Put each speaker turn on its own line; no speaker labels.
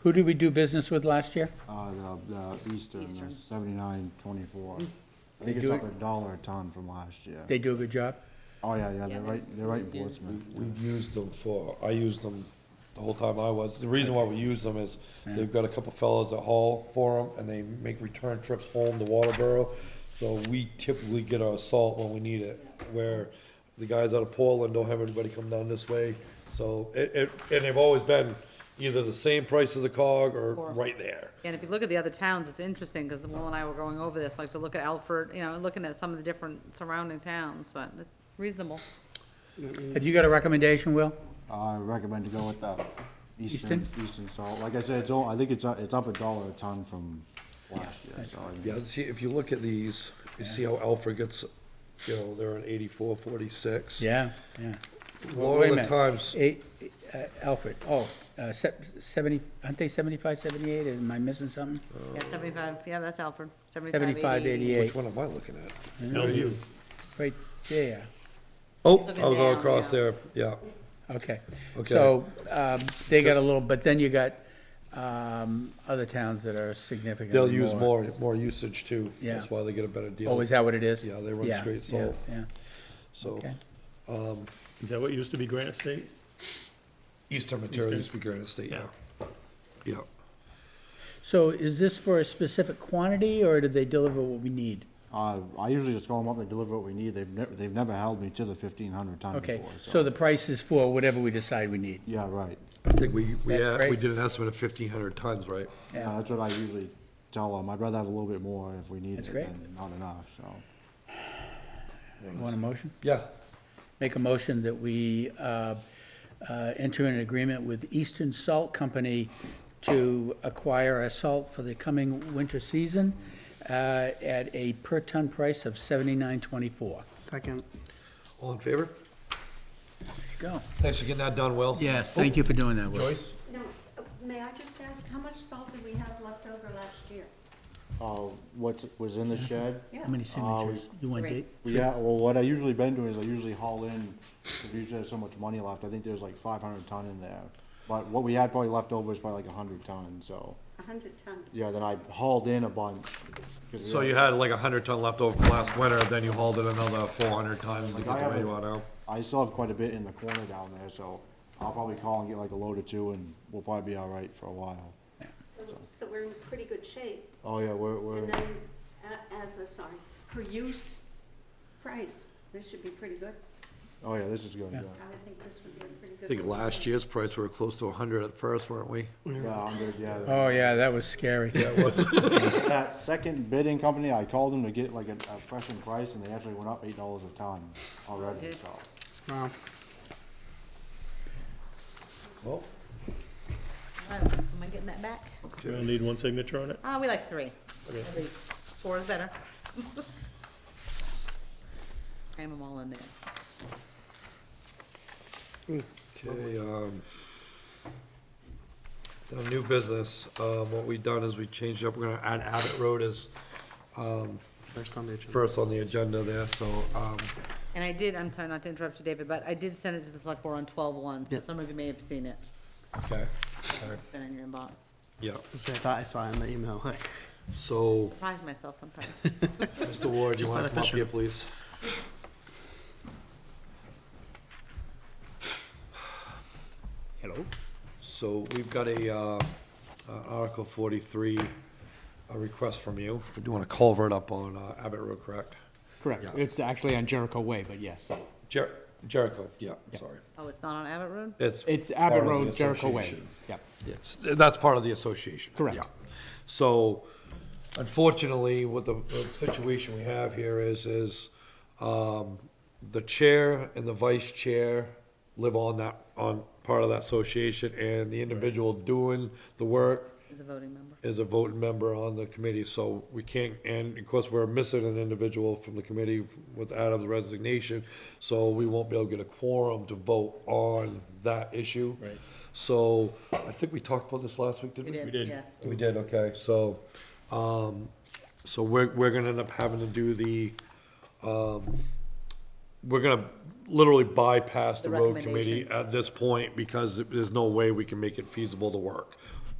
Who did we do business with last year?
Uh, the, the Eastern,
Eastern.
seventy-nine twenty-four. I
Mm. They
think it's
do
up
it-
a dollar a ton from last year.
They do a good job?
Oh, yeah, yeah, they're
they're-
right, they're right in
they're-
Portsmouth.
We've used them for, I used them the whole time I was. The reason why we use them is they've got a couple fellows that haul for them and they make return trips home to Waterboro. So we typically get our salt when we need it, where the guys out of Portland don't have anybody come down this way. So it, it, and they've always been either the same price as the cog or
Or-
right there.
And if you look at the other towns, it's interesting, because Will and I were going over this, like to look at Alfred, you know, looking at some of the different surrounding towns, but it's reasonable.
Have you got a recommendation, Will?
I recommend to go with the Eastern,
Eastern?
Eastern salt. Like I said, it's all, I think it's, uh, it's up a dollar a ton from last year, so I mean,
Yeah, see, if you look at these, you see how Alfred gets, you know, they're an eighty-four, forty-six.
Yeah, yeah. Well,
Lower
wait a
the
minute.
times.
Eight, uh, Alfred, oh, uh, se- seventy, aren't they seventy-five, seventy-eight? Am I missing something?
Yeah, seventy-five, yeah, that's Alfred, seventy-five,
Seventy-five,
eighty.
eighty-eight,
Which one am I looking at?
right there.
Oh,
Looking
I'll go
down,
across
yeah.
there, yeah.
Okay.
Okay.
So, um, they got a little, but then you got, um, other towns that are significantly
They'll use more, more usage too.
Yeah.
That's why they get a better
Oh,
deal,
is that what it is?
Yeah, they run straight
yeah,
salt.
Yeah,
so.
okay.
Is that what used to be Granite State?
Eastern material used to be Granite State, yeah.
Yeah.
Yeah.
So is this for a specific quantity, or do they deliver what we need?
uh, I usually just call them up, they deliver what we need. They've never, they've never held me to the fifteen hundred ton
Okay,
before,
so the price is for whatever we decide we need.
Yeah, right.
I think we, we,
That's
had- we
great.
did an estimate of fifteen hundred tons, right?
Yeah, that's what I usually tell them. I'd rather have a little bit more if we need it
That's great.
than not enough, so.
Want a motion?
Yeah.
Make a motion that we uh, uh, enter an agreement with Eastern Salt Company to acquire our salt for the coming winter season uh, at a per-ton price of seventy-nine twenty-four.
Second.
All in favor?
Go.
Thanks for getting that done, Will. Oh,
Yes, thank you for doing that, Will.
Joyce?
Now, uh, may I just ask, how much salt did we have left over last year?
Uh, what was in the shed?
How many signatures? You want
Three.
eight?
Yeah, well, what I usually been doing is I usually haul in, because we usually have so much money left, I think there's like five hundred ton in there. But what we had probably left over is probably like a hundred ton, so,
A hundred ton?
yeah, then I hauled in a bunch. 'cause we
So
had-
you had like a hundred ton left over from last winter, then you hauled in another four hundred tons to get
I
to where
haven't-
you are now?
I still have quite a bit in the corner down there, so I'll probably call and get like a load or two, and we'll probably be all right for a while.
So, so we're in pretty good shape.
Oh, yeah, we're, we're,
And then, a- as a, sorry, per use price, this should be pretty good.
oh, yeah, this is good, yeah.
I would think this would be a pretty good.
I think last year's price, we were close to a hundred at first, weren't we?
Yeah, Uh, I'm good, yeah.
Oh, yeah, that was scary.
That second bidding company, I called them to get like a, a freshened price, and they actually went up eight dollars a ton already,
Did.
so.
Wow.
Well,
Am I getting that back?
Do I need one signature on it?
Uh, we like three, at least, four is better. Cram them all in there.
Okay, um, the new business, um, what we done is we changed up, we're gonna add Abbott Road as um,
First on the agenda.
first on the agenda there, so, um,
And I did, I'm sorry not to interrupt you, David, but I did send it to the select board on twelve-one, so
Yeah.
some of you may have seen it,
okay, okay,
it's been in your inbox.
yeah.
So I thought I saw it in the email. Like,
So,
Surprise myself sometimes.
Mr. Ward, you
Just
wanna
let it
come up
fissure.
here, please?
Hello?
So we've got a, uh, uh, Article forty-three, a request from you for doing a culvert up on uh, Abbott Road, correct?
Correct.
Yeah.
It's actually on Jericho Way, but yes.
Jer- Jericho, yeah, sorry.
Oh, it's not on Abbott Road?
It's.
It's
part
Abbott
of the
Road, Jericho Way.
association.
Yeah.
Yes, that's part of the association.
Correct.
yeah. So unfortunately, what the, the situation we have here is, is, um, the chair and the vice chair live on that, on part of that association, and the individual doing the work
Is a voting member.
is a voting member on the committee, so we can't, and of course, we're missing an individual from the committee with Adam's resignation, so we won't be able to get a quorum to vote on that issue.
Right.
So, I think we talked about this last week, didn't we?
We did,
did.
yes.
We did, okay, so, um, so we're, we're gonna end up having to do the, um, we're gonna literally bypass the
The
road committee
recommendation.
at this point because there's no way we can make it feasible to work.